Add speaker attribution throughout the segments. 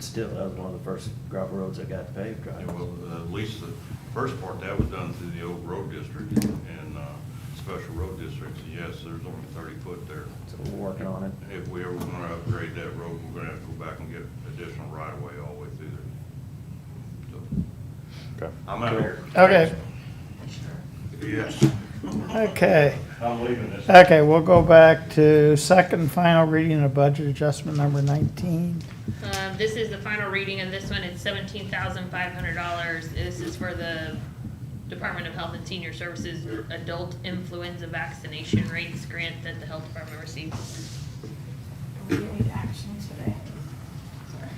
Speaker 1: still, that was one of the first gravel roads that got paved, right?
Speaker 2: Yeah, well, uh, at least the first part, that was done through the old road district and uh, special road districts. Yes, there's only thirty foot there.
Speaker 1: So we're working on it.
Speaker 2: If we ever want to upgrade that road, we're going to have to go back and get additional right of way all the way through there. So,
Speaker 3: Okay.
Speaker 2: I'm out of here.
Speaker 4: Okay.
Speaker 2: Yes,
Speaker 4: Okay,
Speaker 2: I'm leaving this.
Speaker 4: okay, we'll go back to second final reading of budget adjustment number nineteen.
Speaker 5: Um, this is the final reading of this one, it's seventeen thousand five hundred dollars, this is for the Department of Health and Senior Services Adult Influenza Vaccination Rates Grant that the health department receives.
Speaker 6: We need action today. Sorry.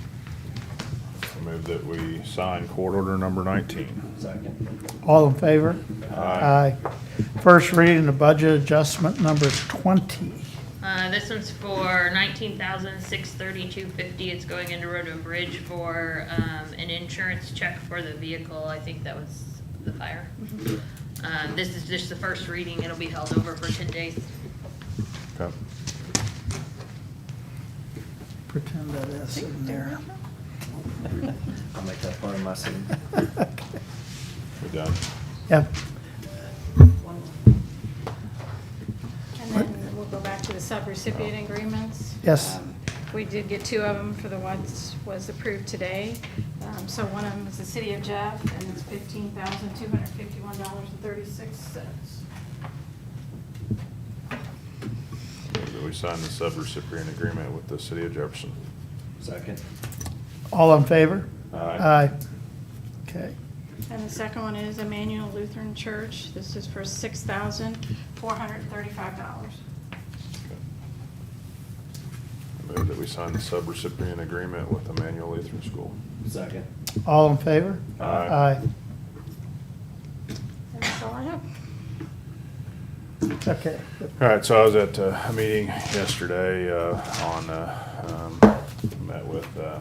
Speaker 3: I move that we sign court order number 19.
Speaker 1: Second.
Speaker 4: All in favor?
Speaker 3: Aye.
Speaker 4: First reading of budget adjustment number twenty.
Speaker 5: Uh, this one's for nineteen thousand six thirty-two fifty, it's going into Road and Bridge for, um, an insurance check for the vehicle, I think that was the fire. Um, this is just the first reading, it'll be held over for ten days.
Speaker 3: Okay.
Speaker 4: Pretend that is in there.
Speaker 1: I'll make that part of my scene.
Speaker 3: We done?
Speaker 4: Yep,
Speaker 6: And then we'll go back to the sub-recipient agreements.
Speaker 4: Yes.
Speaker 6: Um, We did get two of them for the ones was approved today. Um, So one of them is the City of Jeff, and it's fifteen thousand two hundred fifty-one dollars and thirty-six cents.
Speaker 3: Move that we sign the subrecipient agreement with the city of Jefferson.
Speaker 1: Second.
Speaker 4: all in favor?
Speaker 3: Aye.
Speaker 4: Okay,
Speaker 6: And the second one is Emmanuel Lutheran Church. This is for six thousand four hundred thirty-five dollars.
Speaker 3: Okay. Move that we sign the subrecipient agreement with Emmanuel Lutheran School.
Speaker 1: Second.
Speaker 4: all in favor?
Speaker 3: Aye.
Speaker 6: And that's all I have.
Speaker 4: Okay,
Speaker 3: All right, so I was at uh, a meeting yesterday uh, on, uh, um, met with uh,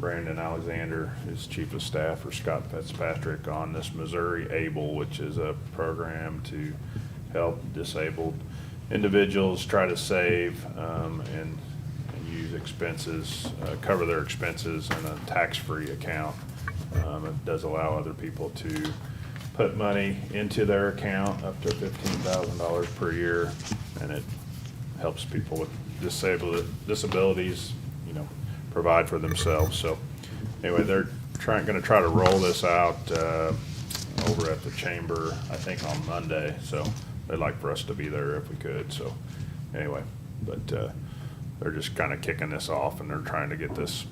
Speaker 3: Brandon Alexander, his chief of staff for Scott Fitzpatrick on this Missouri ABLE, which is a program to help disabled individuals try to save um, and and use expenses, uh, cover their expenses in a tax-free account. Um, It does allow other people to put money into their account up to fifteen thousand dollars per year, and it helps people with disabled, disabilities, you know, provide for themselves, so. Anyway, they're trying, gonna try to roll this out, uh, over at the chamber, I think on Monday, so they'd like for us to be there if we could, so, anyway. But, uh, they're just kinda kicking this off and they're trying to get this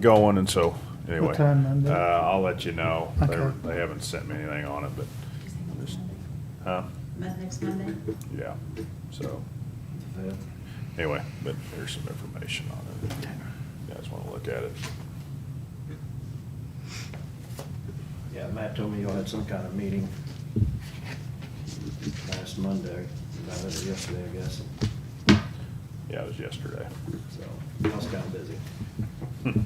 Speaker 3: going, and so, anyway.
Speaker 4: time Monday?
Speaker 3: Uh, I'll let you know. They, were-
Speaker 4: Okay.
Speaker 3: they haven't sent me anything on it, but, Just- huh,
Speaker 7: Next Monday?
Speaker 3: yeah, so,
Speaker 1: The fifth.
Speaker 3: anyway, but there's some information on it. if You guys wanna look at it?
Speaker 1: Yeah, Matt told me y'all had some kind of meeting last Monday, about it yesterday, I guess,
Speaker 3: Yeah, it was yesterday.
Speaker 1: so, y'all's kinda busy,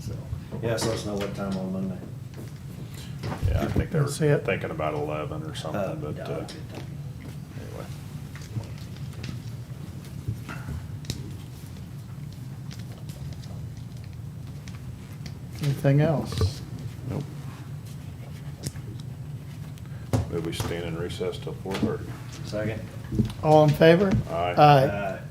Speaker 1: so. Yeah, so let us know what time on Monday.
Speaker 3: Yeah, I think they were
Speaker 4: Let's see it.
Speaker 3: thinking about eleven or
Speaker 1: Uh,
Speaker 3: something, but,
Speaker 1: yeah,
Speaker 3: uh,
Speaker 1: okay, thank you.
Speaker 3: anyway.
Speaker 4: anything else?
Speaker 3: Nope. Maybe we stand in recess till four thirty.
Speaker 1: Second?
Speaker 4: All in favor?
Speaker 3: Aye.
Speaker 4: Aye.
Speaker 1: Aye.